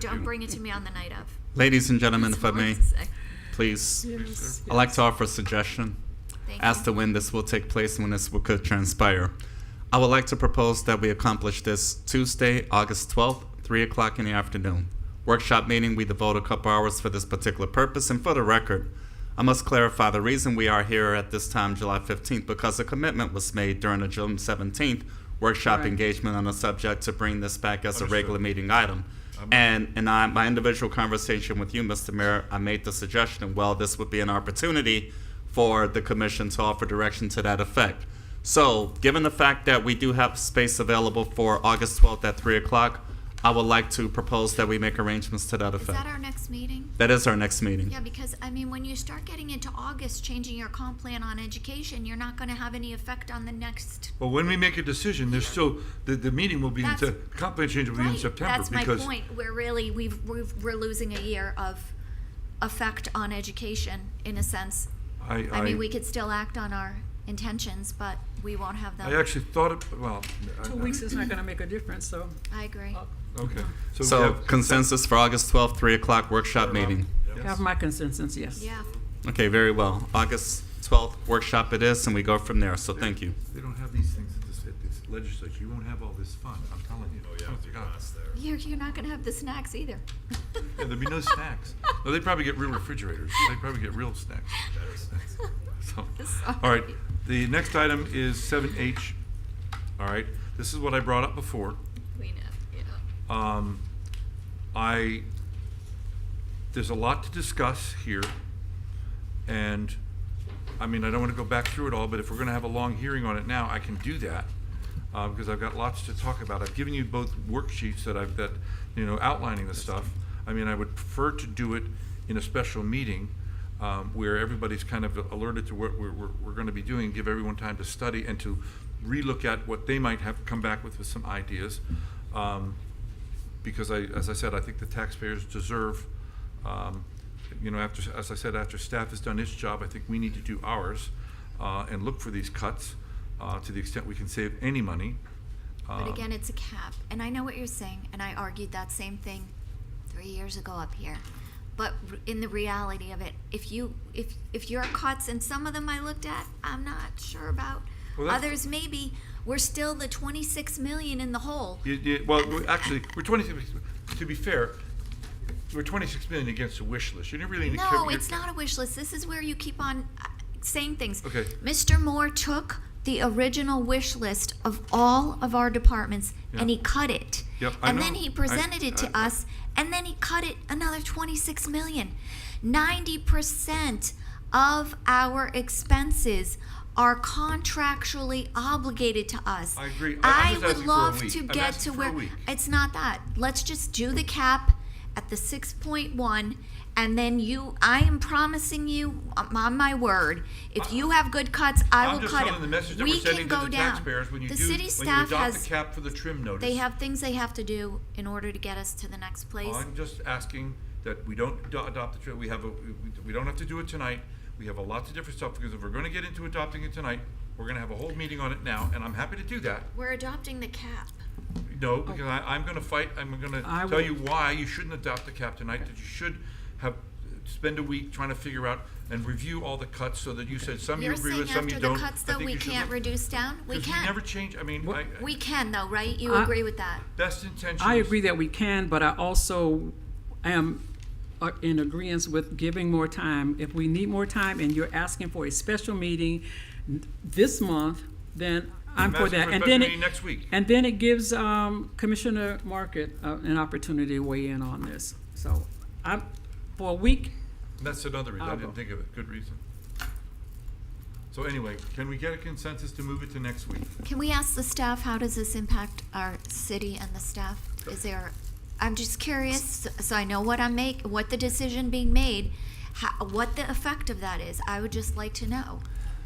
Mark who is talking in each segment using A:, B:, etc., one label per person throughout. A: Don't bring it to me on the night of.
B: Ladies and gentlemen, if I
A: That's all I
B: may,
A: have to say.
B: please,
C: Yes,
B: I'd like to offer a suggestion
A: Thank
B: as
A: you.
B: to when this will take place and when this will, could transpire. I would like to propose that we accomplish this Tuesday, August 12th, 3 o'clock in the afternoon. Workshop meeting, we devote a couple hours for this particular purpose. And for the record, I must clarify the reason we are here at this time, July 15th, because a commitment was made during the June 17th workshop
C: Right.
B: engagement on the subject to bring this back as a
D: Understood.
B: regular meeting item. And and I my individual conversation with you, Mr. Mayor, I made the suggestion, well, this would be an opportunity for the commission to offer direction to that effect. So, given the fact that we do have space available for August twelfth at three o'clock, I would like to propose that we make arrangements to that
A: Is that
B: effect.
A: our next meeting?
B: That is our next meeting.
A: Yeah, because, I mean, when you start getting into August, changing your comp plan on education, you're not gonna have any effect on the next.
D: Well, when we make a decision, there's still, the, the meeting will be in,
A: That's-
D: Sep- comp plan change will be in
A: Right,
D: September.
A: That's my
D: because-
A: point. We're really, we've, we've, we're losing a year of effect on education, in a sense.
D: I,
A: I mean, we
D: I,
A: could still act on our intentions, but we won't have them.
D: I actually thought, it- well. I-
C: Two weeks is not gonna make a difference, so.
A: I agree.
D: Okay. we
B: So
D: have-
B: consensus for August twelfth, three o'clock workshop meeting.
D: Yes.
C: Have my consensus, yes.
A: Yeah,
B: Okay, very well. August twelfth workshop it is, and we go from there, so thank you.
D: They don't have these things at this, at this legislature. You won't have all this fun, I'm telling you. Oh, yeah,
A: you're, you're not gonna have the snacks either.
D: There'll be no snacks. No, they probably get real refrigerators. They probably get real snacks. So, all right,
A: Sorry.
D: the next item is seven H. All right, this is what I brought up before.
A: We know, yeah.
D: Um, I, there's a lot to discuss here, and, I mean, I don't want to go back through it all, but if we're going to have a long hearing on it now, I can do that, uh, because I've got lots to talk about. I've given you both worksheets that I've, that, you know, outlining the stuff. I mean, I would prefer to do it in a special meeting, um, where everybody's kind of alerted to what we're, we're, we're going to be doing, give everyone time to study and to relook at what they might have come back with, with some ideas. Um, because I, as I said, I think the taxpayers deserve, um, you know, after, as I said, after staff has done its job, I think we need to do ours, uh, and look for these cuts, uh, to the extent we can save any money. Um,
A: But again, it's a cap. And I know what you're saying, and I argued that same thing three years ago up here. But r- in the reality of it, if you, if, if your cuts, and some of them I looked at, I'm not sure about.
D: Well, that's-
A: Others maybe, we're still the twenty-six million in the hole.
D: You- you- well, we're actually, we're twenty-six, to be fair, we're twenty-six million against the wish list, you're really.
A: No, it's not a wish list. This is where you keep on uh, saying things.
D: Okay.
A: Mr. Moore took the original wish list of all of our departments and
D: Yeah.
A: he cut it.
D: Yep, I
A: and then
D: know.
A: he
D: I-
A: presented it to
D: I- I-
A: us and then he cut it another 26 million. 90% of our expenses are contractually obligated to us.
D: I agree. I-
A: I,
D: I'm just
A: would
D: asking for a
A: love
D: week.
A: to
D: I'm
A: get to
D: asking for a
A: where
D: week.
A: it's not that. Let's just do the cap at the six point one, and then you. I am promising you um, on my word. If you have good cuts, I
D: I'm
A: will
D: just
A: cut
D: telling
A: them.
D: the message that
A: we
D: we're
A: can
D: sending to
A: go
D: the
A: down.
D: taxpayers when you
A: the
D: do,
A: city
D: when you
A: staff
D: adopt
A: has.
D: the cap for the trim notice.
A: they have things they have to do in order to get us to the next place.
D: I'm just asking that we don't ado- adopt the, tra- we have, a we- we don't have to do it tonight. We have a lots of different stuff, because if we're gonna get into adopting it tonight, we're gonna have a whole meeting on it now, and I'm happy to do that.
A: We're adopting the cap.
D: No,
A: Oh.
D: because I, I'm gonna fight, I'm
C: I
D: gonna tell
C: will-
D: you why you shouldn't adopt the cap tonight, that you should have, spend a week trying to figure out and review all the cuts, so that you said some you
A: You're
D: agree
A: saying
D: with, some
A: after
D: you
A: the
D: don't.
A: cuts,
D: I
A: though,
D: think
A: we
D: you should
A: can't
D: look-
A: reduce down. We
D: 'cause
A: can.
D: we never change, I mean, I,
A: we can though, right? You
C: I-
A: agree with that?
D: best intentions.
C: I agree that we can, but I also am uh, in agreement with giving more time. If we need more time and you're asking for a special meeting n- this month, then I'm for
D: asking
C: that.
D: for a
C: And
D: special
C: then it-
D: meeting next week.
C: And then it gives um, Commissioner Market uh, an opportunity to weigh in on this. So I'm, for a week,
D: That's another reason, I
C: I'll
D: didn't
C: go.
D: think of it, good reason. So anyway, can we get a consensus to move it to next week?
A: Can we ask the staff, how does this impact our city and the staff? Is there, I'm just curious, so I know what I'm make, what the decision being made, ho- what the effect of that is. I would just like to know.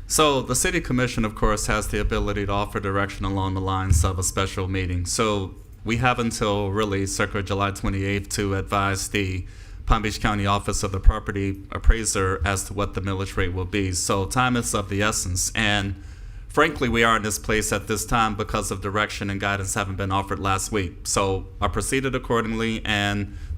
B: So the city commission, of course, has the ability to offer direction along the lines of a special meeting. So we have until really circa July 28th to advise the Palm Beach County Office of the Property Appraiser as to what the millage rate will be. So time is of the essence. And frankly, we are in this place at this time because of direction and guidance haven't been offered last week. So I proceeded accordingly and